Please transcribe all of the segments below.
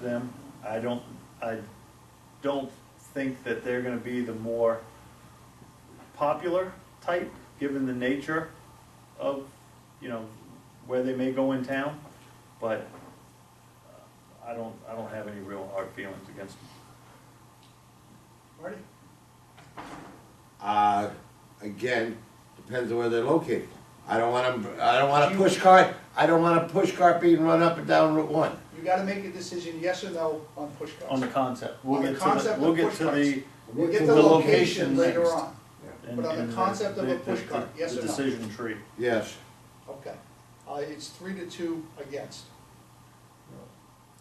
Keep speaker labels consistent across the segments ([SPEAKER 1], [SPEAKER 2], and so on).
[SPEAKER 1] them. I don't, I don't think that they're gonna be the more popular type, given the nature of, you know, where they may go in town, but uh, I don't, I don't have any real hard feelings against them.
[SPEAKER 2] Marty?
[SPEAKER 3] Uh, again, depends on where they're located. I don't want to, I don't want to push cart, I don't want to push cart being run up and down Route One.
[SPEAKER 2] You gotta make a decision, yes or no, on push
[SPEAKER 1] On the
[SPEAKER 2] carts.
[SPEAKER 1] concept, we'll
[SPEAKER 2] On the
[SPEAKER 1] get to
[SPEAKER 2] concept
[SPEAKER 1] the,
[SPEAKER 2] of
[SPEAKER 1] we'll get
[SPEAKER 2] push
[SPEAKER 1] to
[SPEAKER 2] carts.
[SPEAKER 1] the.
[SPEAKER 2] We'll get
[SPEAKER 1] the
[SPEAKER 2] the
[SPEAKER 1] location
[SPEAKER 2] location later
[SPEAKER 1] next.
[SPEAKER 2] on,
[SPEAKER 1] and-
[SPEAKER 2] But on the
[SPEAKER 1] and
[SPEAKER 2] concept of a
[SPEAKER 1] the-
[SPEAKER 2] push
[SPEAKER 1] the-
[SPEAKER 2] cart, yes
[SPEAKER 1] the
[SPEAKER 2] or no?
[SPEAKER 1] Decision tree.
[SPEAKER 3] Yes.
[SPEAKER 2] okay. Uh, it's three to two against.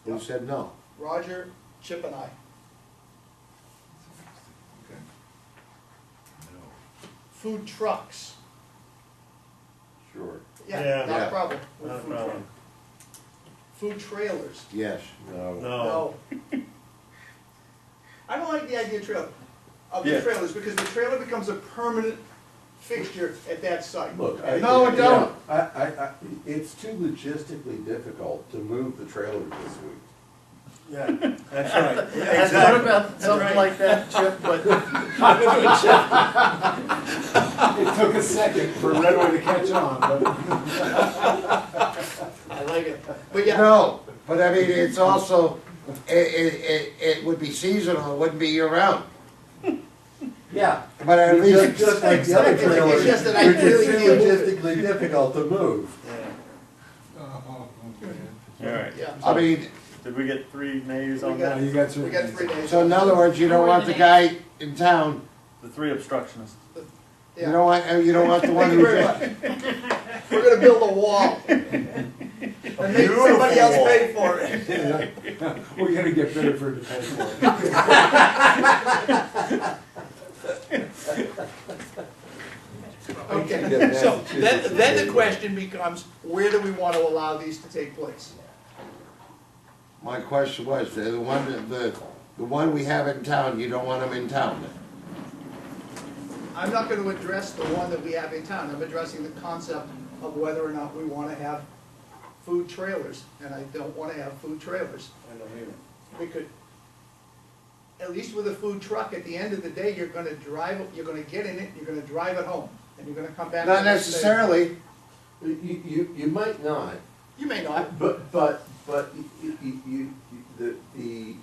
[SPEAKER 3] Who said no?
[SPEAKER 2] Roger, Chip and I. Food trucks,
[SPEAKER 3] Sure.
[SPEAKER 2] yeah,
[SPEAKER 4] Yeah.
[SPEAKER 2] not a
[SPEAKER 3] Yeah.
[SPEAKER 2] problem. with
[SPEAKER 4] Not a
[SPEAKER 2] food truck.
[SPEAKER 4] problem.
[SPEAKER 2] Food trailers,
[SPEAKER 3] Yes. No.
[SPEAKER 4] No.
[SPEAKER 1] Oh.
[SPEAKER 2] no. I don't like the idea of trailer, of the
[SPEAKER 1] Yeah.
[SPEAKER 2] trailers, because the trailer becomes a permanent fixture at that site.
[SPEAKER 5] Look, I.
[SPEAKER 3] No, it
[SPEAKER 5] yeah,
[SPEAKER 3] don't.
[SPEAKER 5] I, I, I, it's too logistically difficult to move the trailer this week.
[SPEAKER 4] Yeah, that's right. Yeah,
[SPEAKER 1] I thought
[SPEAKER 4] exactly.
[SPEAKER 1] about something like that, Chip, but
[SPEAKER 5] It took a second for Redway to catch on, but.
[SPEAKER 2] I like it, but yeah,
[SPEAKER 3] No, but I mean, it's also, it, it, it, it would be seasonal, it wouldn't be year round.
[SPEAKER 5] Yeah.
[SPEAKER 3] But at
[SPEAKER 5] Just,
[SPEAKER 3] least,
[SPEAKER 5] just like the other
[SPEAKER 2] Exactly.
[SPEAKER 5] trailers,
[SPEAKER 2] It's just that I
[SPEAKER 5] they're just
[SPEAKER 2] really deal with
[SPEAKER 5] too logistically difficult to move.
[SPEAKER 1] all right.
[SPEAKER 2] yeah.
[SPEAKER 3] I mean,
[SPEAKER 1] Did we get three nays
[SPEAKER 2] We
[SPEAKER 1] on
[SPEAKER 2] got-
[SPEAKER 1] that?
[SPEAKER 4] You got
[SPEAKER 2] We
[SPEAKER 4] three.
[SPEAKER 2] got three days.
[SPEAKER 3] so in other words, you don't want the guy in town,
[SPEAKER 1] The three obstructionists.
[SPEAKER 3] you
[SPEAKER 2] Yeah.
[SPEAKER 3] don't want, you don't want the one
[SPEAKER 2] Thank you
[SPEAKER 3] who.
[SPEAKER 2] very much. We're gonna build a wall. And make somebody else pay for it.
[SPEAKER 4] We're gonna get better for defense.
[SPEAKER 2] Okay, so then, then the question becomes, where do we wanna allow these to take place?
[SPEAKER 3] My question was, the one, that- the, the one we have in town, you don't want them in town then?
[SPEAKER 2] I'm not gonna address the one that we have in town, I'm addressing the concept of whether or not we wanna have food trailers, and I don't wanna have food trailers. We could, at least with a food truck, at the end of the day, you're gonna drive, you're gonna get in it, you're gonna drive it home, and you're gonna come back.
[SPEAKER 3] Not
[SPEAKER 2] the next day.
[SPEAKER 3] necessarily,
[SPEAKER 5] You, you, you might not,
[SPEAKER 2] You may not,
[SPEAKER 5] But, but, but y- y- y- you, you, the, the,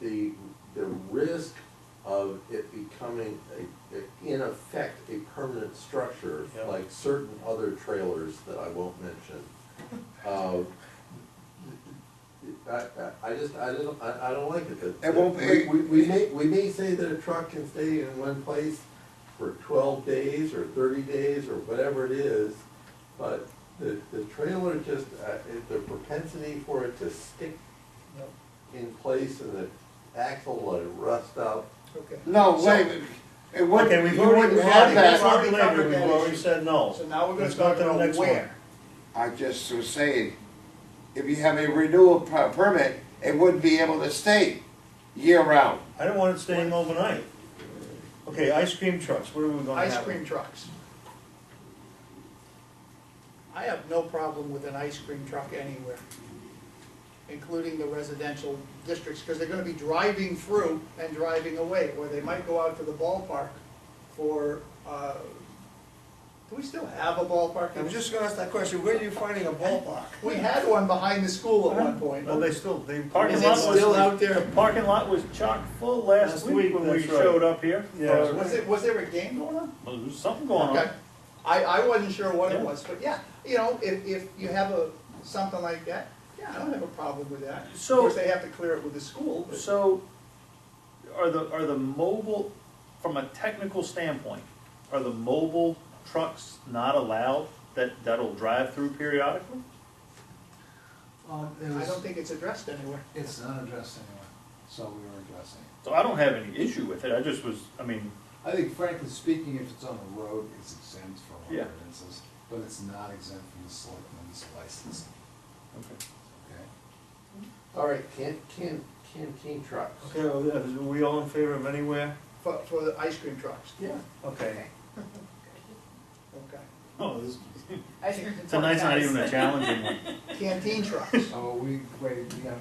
[SPEAKER 5] the, the risk of it becoming a, a- in effect, a permanent structure,
[SPEAKER 4] Yeah.
[SPEAKER 5] like certain other trailers that I won't mention. uh, I, I, I just, I don't, I, I don't like it.
[SPEAKER 3] It won't be-
[SPEAKER 5] We, we- we may, we may say that a truck can stay in one place for twelve days or thirty days or whatever it is, but the, the trailer just, uh, it- the propensity for it to stick in place and the axle will rust out.
[SPEAKER 2] okay.
[SPEAKER 3] no,
[SPEAKER 2] So-
[SPEAKER 3] wait, it wouldn't,
[SPEAKER 4] Okay, we've
[SPEAKER 3] you
[SPEAKER 4] already,
[SPEAKER 3] wouldn't
[SPEAKER 4] we've
[SPEAKER 3] have
[SPEAKER 4] already, that's
[SPEAKER 3] that.
[SPEAKER 2] Well-
[SPEAKER 4] already labeled, we've already said no.
[SPEAKER 2] So now we're gonna
[SPEAKER 4] Let's go
[SPEAKER 2] talk
[SPEAKER 4] to the
[SPEAKER 2] about
[SPEAKER 4] next one.
[SPEAKER 2] where.
[SPEAKER 3] I just was saying, if you have a renewal per- permit, it wouldn't be able to stay year round.
[SPEAKER 4] I don't want it staying overnight. Okay, ice cream trucks, what are we gonna have?
[SPEAKER 2] Ice cream trucks. I have no problem with an ice cream truck anywhere, including the residential districts, because they're gonna be driving through and driving away, or they might go out to the ballpark for, uh, do we still have a ballpark?
[SPEAKER 6] I was just gonna ask that question, where are you finding a ballpark?
[SPEAKER 2] We had one behind the school at one point.
[SPEAKER 4] Well, they still, they.
[SPEAKER 1] Parking
[SPEAKER 2] Is
[SPEAKER 1] lot
[SPEAKER 2] it
[SPEAKER 1] was.
[SPEAKER 2] still out
[SPEAKER 1] The
[SPEAKER 2] there?
[SPEAKER 1] parking lot was chock full last
[SPEAKER 4] Last
[SPEAKER 1] week
[SPEAKER 4] week,
[SPEAKER 1] when we
[SPEAKER 4] that's right.
[SPEAKER 1] showed up here.
[SPEAKER 4] Yeah.
[SPEAKER 1] Or-
[SPEAKER 2] Was it, was there a game going on?
[SPEAKER 1] Well, there was something going on.
[SPEAKER 2] Okay. Um, I, I wasn't sure what it
[SPEAKER 1] Yeah.
[SPEAKER 2] was, but yeah, you know, if, if you have a, something like that, yeah, I don't have a problem with that. Of
[SPEAKER 1] So-
[SPEAKER 2] course, they have to clear it with the school, but
[SPEAKER 1] So, are the, are the mobile, from a technical standpoint, are the mobile trucks not allowed that, that'll drive through periodically?
[SPEAKER 7] Um, it
[SPEAKER 2] I
[SPEAKER 7] was,
[SPEAKER 2] don't think it's addressed anywhere.
[SPEAKER 7] it's unaddressed anyway, so we were addressing it.
[SPEAKER 1] So I don't have any issue with it, I just was, I mean,
[SPEAKER 7] I think frankly speaking, if it's on the road, it's exempt from
[SPEAKER 1] Yeah.
[SPEAKER 7] ordinances, but it's not exempt from the selectmen's license, okay?
[SPEAKER 5] All right, can, can, canteen trucks.
[SPEAKER 4] Okay, well, yeah, is- are we all in favor of anywhere?
[SPEAKER 2] For, for the ice cream trucks,
[SPEAKER 5] Yeah.
[SPEAKER 4] Okay.
[SPEAKER 2] okay.
[SPEAKER 1] oh, this,
[SPEAKER 8] I think
[SPEAKER 1] tonight's not even a challenging one.
[SPEAKER 2] canteen trucks.
[SPEAKER 7] Oh, we, wait, we gotta